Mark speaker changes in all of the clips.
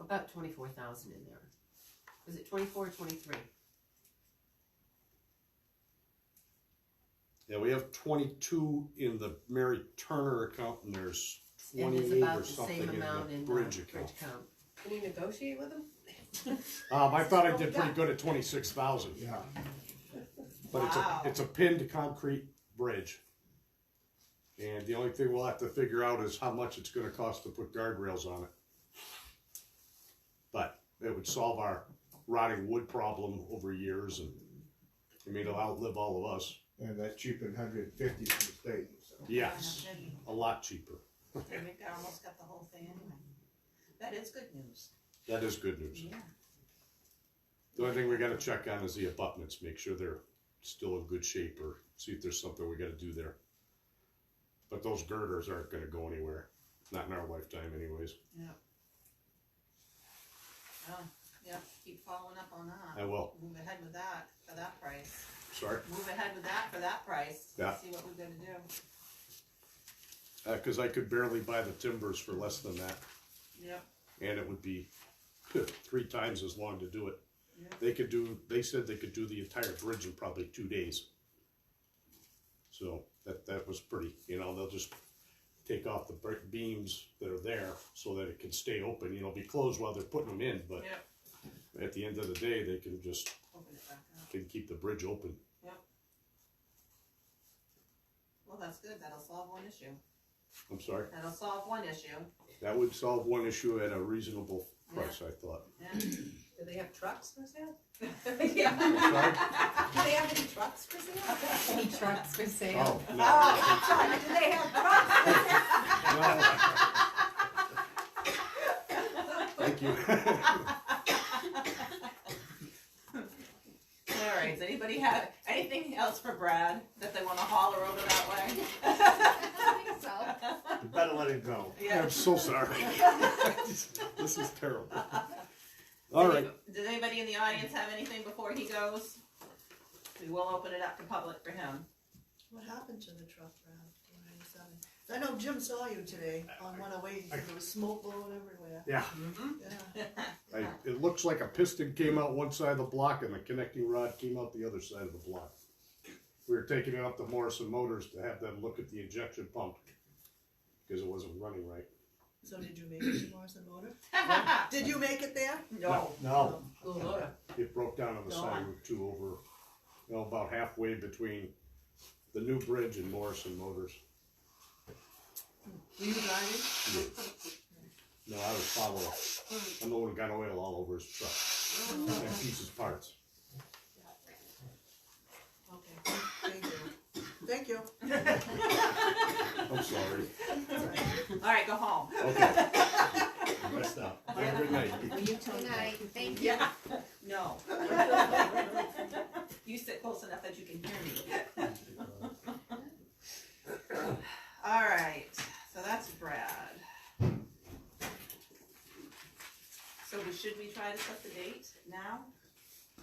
Speaker 1: about twenty-four thousand in there. Was it twenty-four or twenty-three?
Speaker 2: Yeah, we have twenty-two in the Mary Turner account and there's
Speaker 1: And it's
Speaker 2: twenty-eight
Speaker 1: about
Speaker 2: or
Speaker 1: the
Speaker 2: something
Speaker 1: same
Speaker 2: in
Speaker 1: amount
Speaker 2: the
Speaker 1: in the
Speaker 2: bridge
Speaker 1: bridge
Speaker 2: account.
Speaker 1: account.
Speaker 3: Can you negotiate with them?
Speaker 2: Um, I thought I
Speaker 3: Oh,
Speaker 2: did
Speaker 3: yeah.
Speaker 2: pretty good at twenty-six thousand. Yeah. But it's a,
Speaker 3: Wow.
Speaker 2: it's a pinned concrete bridge. And the only thing we'll have to figure out is how much it's gonna cost to put guardrails on it. But it would solve our rotting wood problem over years and, I mean, it'll outlive all of us.
Speaker 4: And that's cheaper than hundred and fifty from the state, so.
Speaker 2: Yes, a lot cheaper.
Speaker 5: I mean, I almost got the whole thing anyway. That is good news.
Speaker 2: That is good news.
Speaker 5: Yeah.
Speaker 2: The only thing we gotta check on is the abutments, make sure they're still in good shape or see if there's something we gotta do there. But those girders aren't gonna go anywhere, not in our lifetime anyways.
Speaker 5: Oh, yeah, keep following up on
Speaker 2: I
Speaker 5: that.
Speaker 2: will,
Speaker 5: Move ahead with that for that price.
Speaker 2: sorry,
Speaker 5: Move ahead with that for that price.
Speaker 2: Yeah.
Speaker 5: See what we're gonna do.
Speaker 2: Uh 'cause cause I could barely buy the timbers for less than that,
Speaker 5: Yep,
Speaker 2: and it would be three times as long to do it.
Speaker 5: yep.
Speaker 2: They could do, they said they could do the entire bridge in probably two days. So that, that was pretty, you know, they'll just take off the brick beams that are there so that it can stay open, you know, be closed while they're putting them in, but
Speaker 5: Yep.
Speaker 2: at the end of the day, they can just,
Speaker 5: Open it back up.
Speaker 2: can keep the bridge open.
Speaker 5: Well, that's good. That'll solve one issue.
Speaker 2: I'm sorry,
Speaker 5: That'll solve one issue.
Speaker 2: that would solve one issue at a reasonable price, I thought.
Speaker 5: Yeah.
Speaker 3: Do they have trucks for sale?
Speaker 5: Yeah.
Speaker 2: I'm sorry?
Speaker 3: Do they have any trucks for sale?
Speaker 1: Any trucks for sale?
Speaker 2: Oh, no.
Speaker 3: Do they have trucks?
Speaker 2: Thank you.
Speaker 5: All right, does anybody have anything else for Brad that they wanna holler over that way?
Speaker 4: You better let it go.
Speaker 5: Yeah.
Speaker 2: I'm so sorry. This is terrible. All right,
Speaker 5: Does anybody in the audience have anything before he goes? We will open it up to public for him.
Speaker 6: What happened to the truck route, four ninety-seven? I know Jim saw you today on one oh eight, there was smoke blowing everywhere,
Speaker 2: yeah.
Speaker 6: yeah.
Speaker 2: I, it looks like a piston came out one side of the block and the connecting rod came out the other side of the block. We were taking it up to Morrison Motors to have them look at the injection pump because it wasn't running right.
Speaker 6: So did you make it to Morrison Motor?
Speaker 5: No.
Speaker 6: Did you make it there?
Speaker 2: No,
Speaker 3: Oh, Lord.
Speaker 2: it broke down on the side of Route Two over, you know, about halfway between the new bridge and Morrison Motors.
Speaker 6: Were you driving?
Speaker 2: No, I was following. I'm the one who got oil all over his truck and pieces parts.
Speaker 6: Okay, thank you, thank you.
Speaker 2: I'm sorry.
Speaker 5: All right, go home.
Speaker 2: Okay. Messed up. Have a good night.
Speaker 1: Will you tell
Speaker 3: Good
Speaker 1: me?
Speaker 3: night, thank you.
Speaker 5: Yeah. No. You sit close enough that you can hear me. All right, so that's Brad. So we- should we try to set the date now?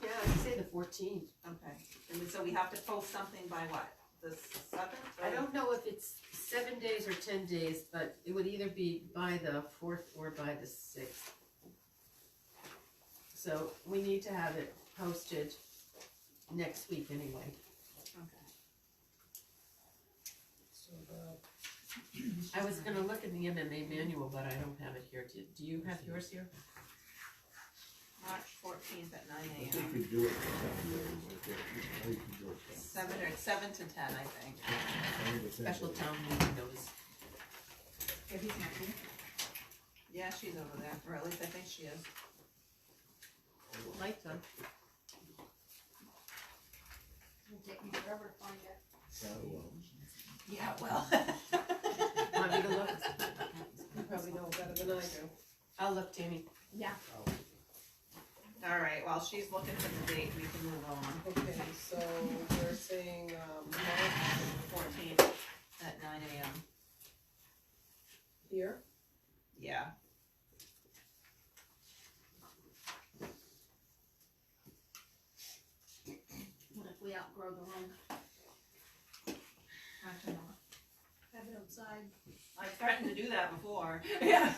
Speaker 1: Yeah, I'd say the fourteenth.
Speaker 5: Okay, and so we have to post something by what, the seventh?
Speaker 1: I don't know if it's seven days or ten days, but it would either be by the fourth or by the sixth. So we need to have it posted next week anyway.
Speaker 6: So, uh,
Speaker 3: uh,
Speaker 1: I was gonna look in the MMA manual, but I don't have it here. Do, do you have yours here?
Speaker 5: March fourteenth at nine
Speaker 4: I think
Speaker 5: AM,
Speaker 4: you do it for seven days, I think you do it
Speaker 5: seven or seven to ten, I think.
Speaker 4: for seven days.
Speaker 1: Special town meeting notice.
Speaker 5: Yeah, she's over there, or at least I think she is.
Speaker 1: Like them.
Speaker 4: So, um, well,
Speaker 5: Yeah, well.
Speaker 1: Want me to look?
Speaker 3: You probably know better than I do.
Speaker 1: I'll look, Tammy.
Speaker 5: All right, while she's looking for the date, we can move on.
Speaker 3: Okay, so we're saying, um, Mark
Speaker 5: Fourteenth at nine AM.
Speaker 3: here,
Speaker 5: Yeah.
Speaker 7: What if we outgrow the room?
Speaker 6: have it outside.
Speaker 5: I threatened to do that before. Yeah.